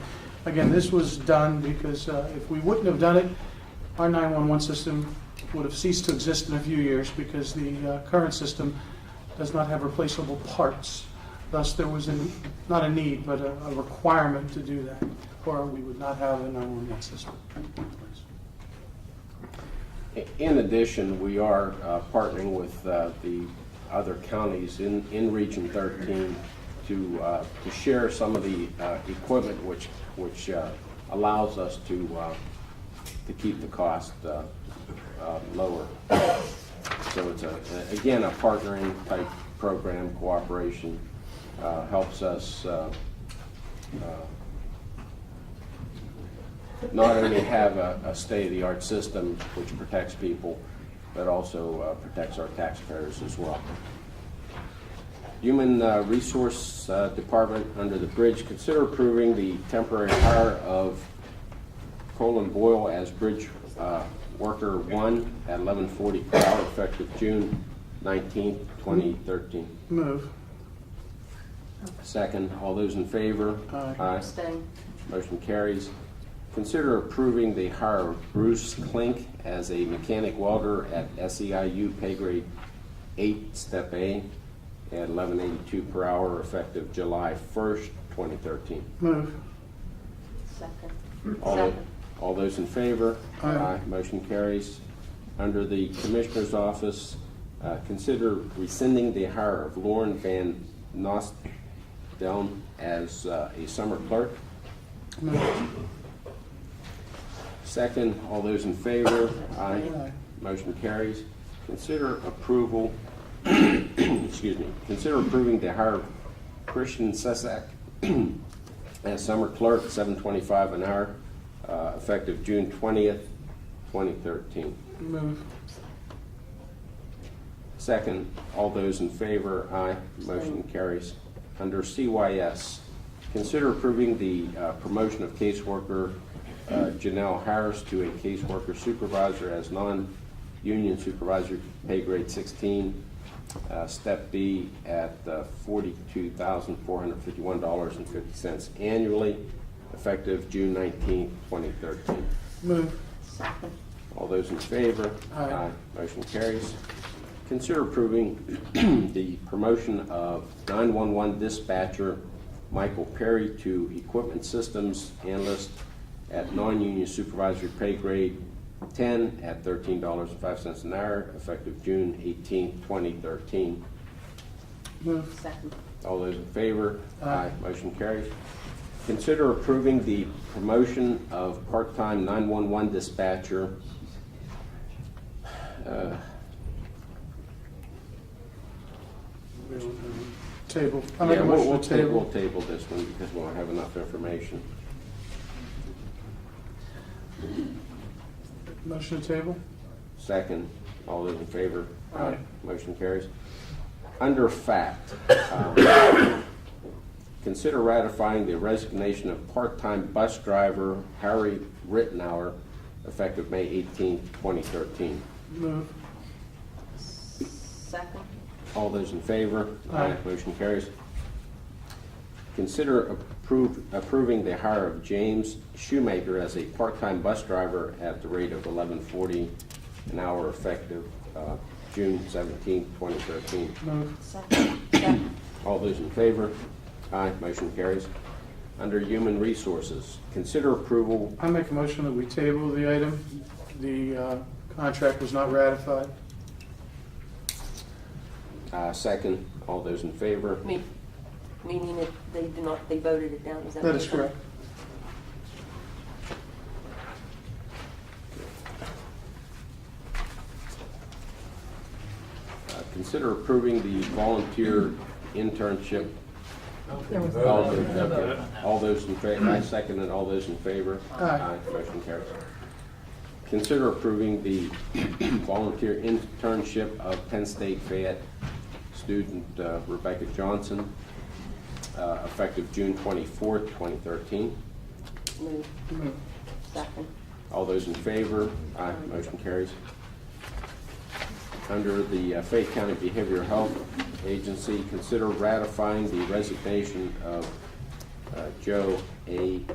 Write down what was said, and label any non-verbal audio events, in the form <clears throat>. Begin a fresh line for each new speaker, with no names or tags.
Again, this was done because uh, if we wouldn't have done it, our 911 system would have ceased to exist in a few years because the uh, current system does not have replaceable parts. Thus, there was an- not a need, but a a requirement to do that, or we would not have a 911 system.
In addition, we are uh, partnering with uh, the other counties in, in Region 13 to, uh, to share some of the uh, equipment which, which uh, allows us to, uh, to keep the cost uh, uh, lower. So it's a, again, a partnering type program, cooperation, uh, helps us uh, not only have a, a state-of-the-art system which protects people, but also uh, protects our taxpayers as well. Human uh, Resource uh, Department, under the bridge, consider approving the temporary hire of Colin Boyle as Bridge uh, Worker One at eleven forty per hour effective June nineteenth, twenty thirteen.
Move.
Second, all those in favor?
Aye.
Abstain.
Motion carries. Consider approving the hire of Bruce Klink as a mechanic welder at SEIU pay grade eight, step A, at eleven eighty-two per hour, effective July first, twenty thirteen.
Move.
Second.
All
Second.
all those in favor?
Aye.
Motion carries. Under the Commissioner's Office, uh, consider rescinding the hire of Lauren Van Nostelm as uh, a summer clerk.
Move.
Second, all those in favor?
Aye.
Motion carries. Consider approval, <clears throat> excuse me, consider approving the hire of Christian Sesak <clears throat> as summer clerk, seven twenty-five an hour, uh, effective June twentieth, twenty thirteen.
Move.
Second, all those in favor, aye. Motion carries. Under CYS, consider approving the uh, promotion of caseworker uh, Janelle Harris to a caseworker supervisor as non-union supervisor, pay grade 16, uh, step B at uh, $42,451.50 annually, effective June 19, 2013.
Move.
Second.
All those in favor?
Aye.
Motion carries. Consider approving <clears throat> the promotion of 911 dispatcher Michael Perry to Equipment Systems Analyst at non-union supervisory pay grade 10 at $13.05 an hour, effective June 18, 2013.
Move.
Second.
All those in favor?
Aye.
Motion carries. Consider approving the promotion of part-time 911 dispatcher. uh,
Table. I make
Yeah,
a
we'll,
motion
we'll
to
ta- we'll
table.
table this one because we don't have enough information.
Motion to table?
Second, all those in favor?
Aye.
Motion carries. Under fact, um, consider ratifying the resignation of part-time bus driver Harry Rittenhour effective May 18, 2013.
Move.
Second.
All those in favor?
Aye.
Motion carries. Consider approve, approving the hire of James Shoemaker as a part-time bus driver at the rate of eleven forty an hour effective, uh, June 17, twenty thirteen.
Move.
Second. Second.
All those in favor? Aye, motion carries. Under Human Resources, consider approval,
I make a motion that we table the item. The uh, contract was not ratified.
uh, second, all those in favor?
Me- Meaning that they do not, they voted it down, is that?
That
what
is
you're saying?
correct.
Uh, Consider approving the volunteer internship. All those- okay. All those in favor, I second it, all those in favor?
Aye.
Motion carries. Consider approving the <clears throat> volunteer internship of Penn State Fayette student uh, Rebecca Johnson, uh, effective June twenty-fourth, twenty thirteen.
Move.
Move.
Second.
All those in favor? Aye, motion carries. Under the uh, Fayette County Behavioral Health Agency, consider ratifying the resignation of uh, Joe A.